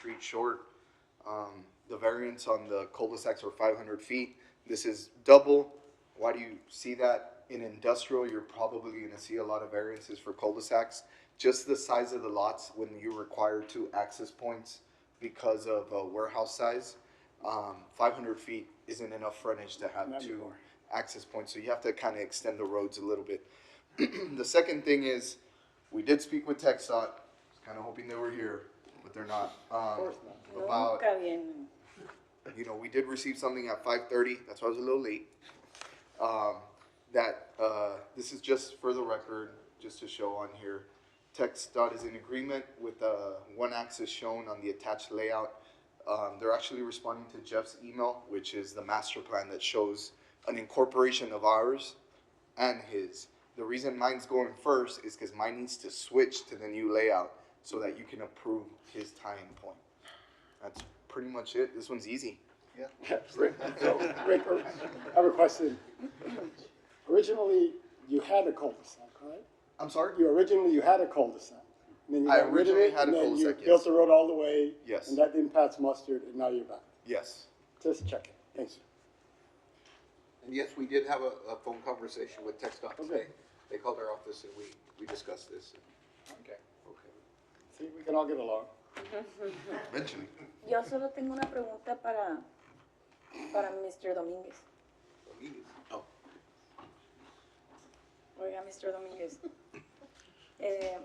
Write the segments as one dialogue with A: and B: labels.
A: street short. Um, the variance on the cul-de-sacs are five hundred feet. This is double. Why do you see that? In industrial, you're probably gonna see a lot of variances for cul-de-sacs. Just the size of the lots when you require two access points because of uh, warehouse size. Um, five hundred feet isn't enough frontage to have two access points, so you have to kind of extend the roads a little bit. The second thing is, we did speak with TechSot, kind of hoping they were here, but they're not. Of About
B: Nunca vienen.
A: you know, we did receive something at five thirty, that's why I was a little late. Um, that, uh, this is just for the record, just to show on here. Text dot is in agreement with, uh, one axis shown on the attached layout. Um, they're actually responding to Jeff's email, which is the master plan that shows an incorporation of ours and his. The reason mine's going first is because mine needs to switch to the new layout so that you can approve his tying point. That's pretty much it. This one's easy.
C: Rick, so, Rick, I have a question. Originally, you had a cul-de-sac, right?
A: I'm sorry?
C: You originally, you had a cul-de-sac. and then you
A: I
C: got rid of
A: originally
C: it,
A: had a
C: and then you
A: cul-de-sac, yes.
C: Built the road all the way.
A: Yes.
C: And that didn't pass mustard, and now you're back.
A: Yes.
C: Just checking. Thanks.
D: And yes, we did have a, a phone conversation with Tech Dot today. They called our office and we, we discussed this.
C: Okay.
D: Okay.
C: See, we can all get along.
A: Eventually.
B: Yo solo tengo una pregunta para, para Mr. Domínguez.
D: Oh.
B: Oiga, Mr. Domínguez. Eh,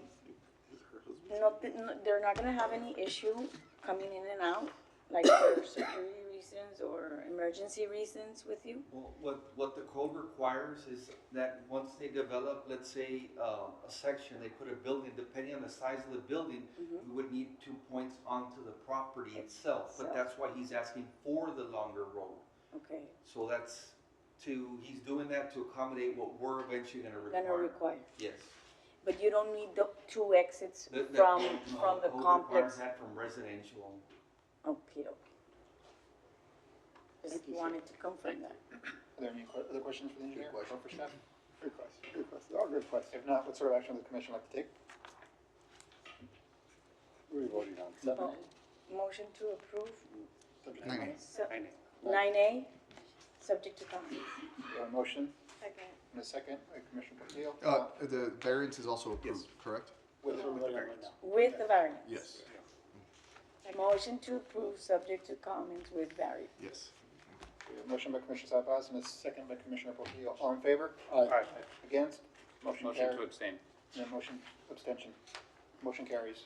B: no, te- no- they're not gonna have any issue coming in and out, like for security reasons or emergency reasons with you?
E: Well, what, what the code requires is that once they develop, let's say, uh, a section, they put a building, depending on the size of the building,
B: Mm-hmm.
E: we would need two points onto the property itself, but
B: Itself.
E: that's why he's asking for the longer road.
B: Okay,
E: So that's to, he's doing that to accommodate what we're eventually gonna
B: gonna
E: require.
B: require,
E: Yes.
B: but you don't need the two exits
E: The- the-
B: from,
E: no,
B: from the
E: code requires
B: complex?
E: that from residential.
B: Okay, okay. Just
C: Thank you, sir.
B: wanted to confirm that.
F: Are there any que- other questions for the engineer or for staff?
C: Good question, good question, all good question.
F: If not, what sort of action would the commission like to take?
C: What are you voting on?
F: Seven
B: Oh, Motion to approve.
F: A?
A: Nine
B: Sub-
F: Nine
B: Nine A, subject to comment.
F: We have a motion
B: Second.
F: and a second, Uh, Commissioner Portillo.
A: Uh, the variance is also approved, correct?
C: That's what we're voting on right now.
B: With the variance.
A: Yes.
B: Motion to approve, subject to comments with variance.
A: Yes.
F: We have a motion by Commissioner Sabas and a second by Commissioner Portillo. All in favor?
C: Aye.
F: Against? Motion
G: Motion to
F: carries.
G: abstain.
F: No motion, abstention. Motion carries.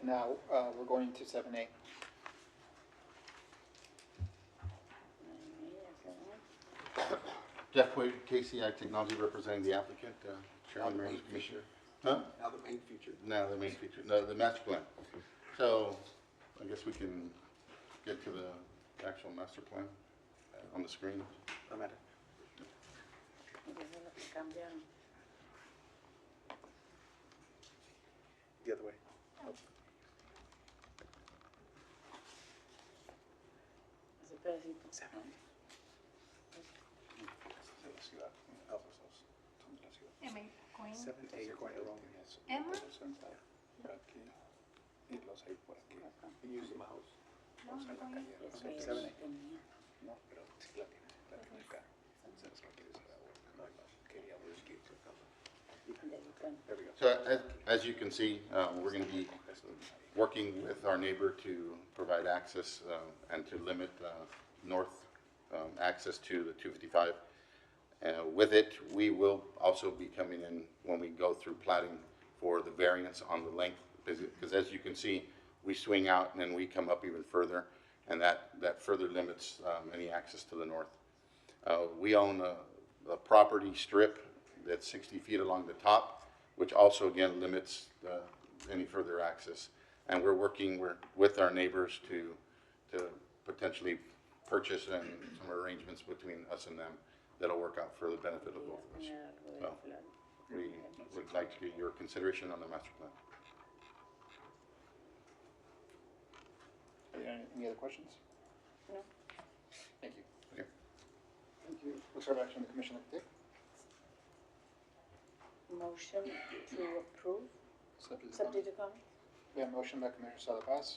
F: And now, uh, we're going to seven A.
H: Jeff Wade, KCI Technology representing the applicant, uh, Chairman, Range Commissioner. Huh?
D: Now the main feature.
H: No, the main feature, no, the master plan. So I guess we can get to the actual master plan uh, on the screen.
B: Eso es lo que cambiaron.
D: The other way.
B: Ese pedacito.
D: Oh,
I: Am I going?
F: Seven A, you're going the wrong way.
I: Am I?
F: Por aquí. Y los hay por aquí. Y use the mouse.
I: No, I'm going.
B: Eso ya
F: Seven
B: lo
F: A.
B: tenía.
F: No, pero sí la tiene, la tiene acá. ¿Sabes por qué quieres saber? No, no, quería ver que se acaba.
B: Del plan.
F: There we go.
H: So as, as you can see, uh, we're going to be working with our neighbor to provide access uh, and to limit uh, north um, access to the 255. Uh, With it, we will also be coming in when we go through plating for the variance on the length, because as you can see, we swing out and then we come up even further, and that, that further limits um, any access to the north. Uh, We own a, a property strip that's 60 feet along the top, which also again limits uh, any further access. And we're working we're- with our neighbors to, to potentially purchase and some arrangements between us and them that'll work out for the benefit of both of us.
B: Tenía algo del
H: Well.
B: plan.
H: We would like to get your consideration on the master plan.
F: Are there any- Any other questions?
B: No.
F: Thank you.
H: Okay.
F: Thank you. What sort of action the commission like to take?
B: Motion to approve,
F: Subject
B: subject
F: to comment.
B: to comment.
C: We have a motion by Commissioner Sala Paz,